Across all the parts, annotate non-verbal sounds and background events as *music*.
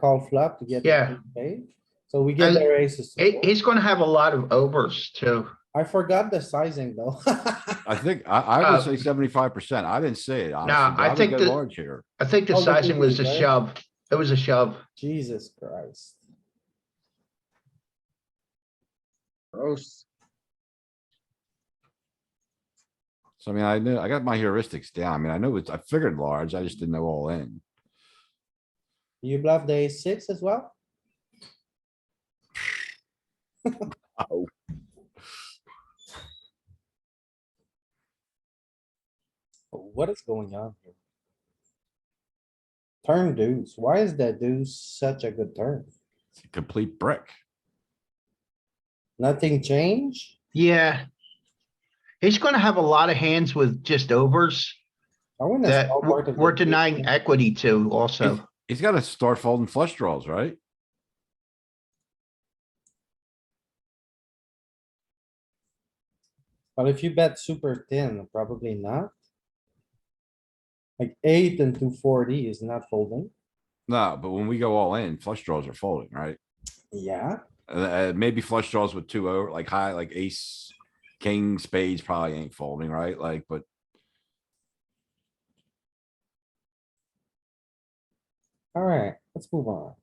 call flop to get. the Yeah. big paid. So we get And the aces. to He- fold. he's gonna have a lot of overs too. I forgot the sizing though. *laughs* I think, I, I Uh, would say seventy-five percent. I didn't say it, honestly. I but would think go that- Large here. I think the Oh, look at sizing was a these, right? shove. It was a shove. Jesus Christ. Gross. So I mean, I knew, I got my heuristics down. I mean, I know it's, I figured large, I just didn't know all in. You bluff the ace six as well? What is going on here? Turn deuce. Why is that deuce such a good turn? It's a complete brick. Nothing changed? Yeah. He's gonna have a lot of hands with just overs I wanna that small part we're of we're the deuce. denying equity to also. He's gotta start folding flush draws, right? But if you bet super thin, probably not. Like eight and two forty is not folding. No, but when we go all in, flush draws are folding, right? Yeah, Uh, uh, maybe flush draws with two over, like high, like ace, king, spades probably ain't folding, right? Like, but alright, let's move on.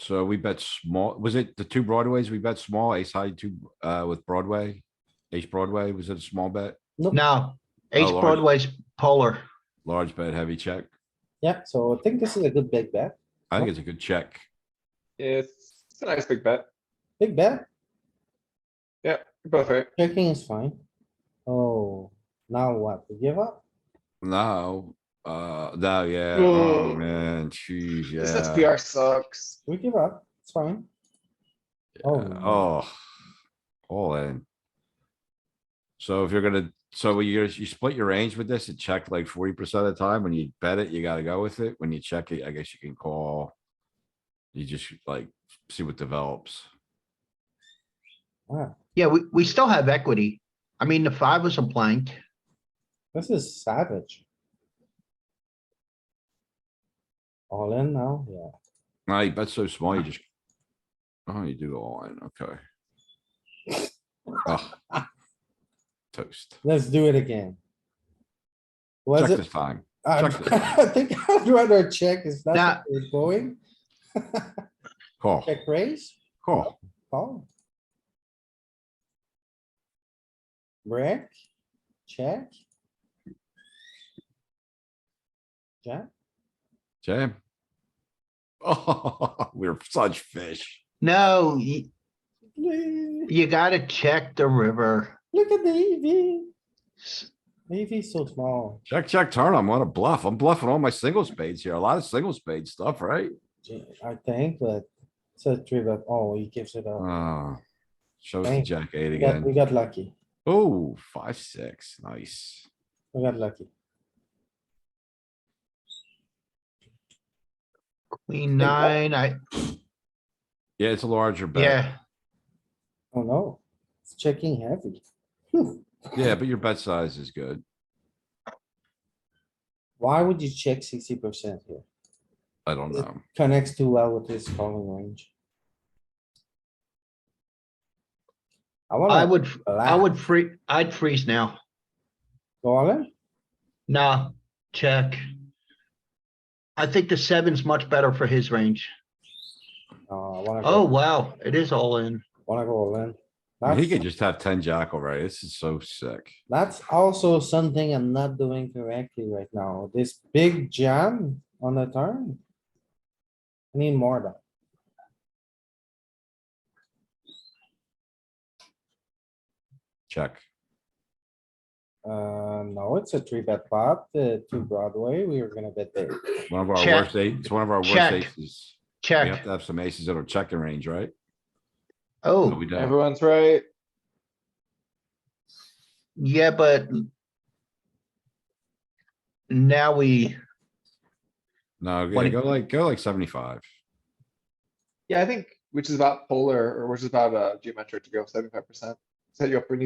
so we bet small, was it the two broadways? We bet small, ace high two, uh, with Broadway? Ace Broadway, was it a small bet? No, ace Oh, Lord. Broadway's polar. Large bet, heavy check? Yeah, so I think this is a good big bet. I think it's a good check. Yeah, It's it's a nice big bet. Big bet, You're both right. checking is fine. Oh, now what? We give up? No, uh, no, yeah, oh, Oh. man, jeez, This yeah. SPR sucks. We give up, it's fine. Oh, no. Oh, all in. So if you're gonna, so you, you split your range with this, it check like forty percent of the time. When you bet it, you gotta go with it. When you check it, I guess you can call. You just like see what develops. Wow, Yeah, we, we still have equity. I mean, the five was a blank. this is savage. All in now, yeah. No, you bet so small, you just. Oh, you do all in, okay. *laughs* Ugh. Toast. Let's do it again. Check Was it this time. I *laughs* Check I think I'd rather check, is Nah. that where it's going? Call, Check raise, call. call. Brick, check. Jack, Jam. *laughs* Oh, we're such fish. No, you, please, you gotta check the river. look at the EV, EV is so small. Check, check, turn. I'm on a bluff. I'm bluffing all my single spades here. A lot of single spade stuff, right? Gee, I think, but it's a three bet, oh, he gives it up. Oh. Show us the Dang. jack eight We got, we again. got lucky, Oh, five, six. Nice. we got lucky. Queen oh. nine, I, Yeah, it's a larger bet. yeah, Oh no, it's checking heavy. Yeah, but your bet size is good. Why would you check sixty percent here? I don't It- know. Connects too well with his calling range. I I wanna would, I blast. would free, I'd freeze now. go all in. Nah, check. I think the seven's much better for his range. No, I wanna Oh, go, wow, it is all in. wanna go all in. I mean, He That's, could just have ten jack already. This is so sick. that's also something I'm not doing correctly right now. This big jam on the turn. I Need more of that. Check. Uh, no, it's a three bet pot, uh, two Broadway. We were gonna bet there. One of our Check. worst eight, it's one of our worst Check. aces. We have Check. to have some aces that are checking range, right? No, Oh, we don't. Everyone's right. yeah, but now we, No, yeah, What- go like, go like seventy-five. Yeah, I think, which is about polar, or which is about uh geometric to go seventy-five percent. Set you up for an easy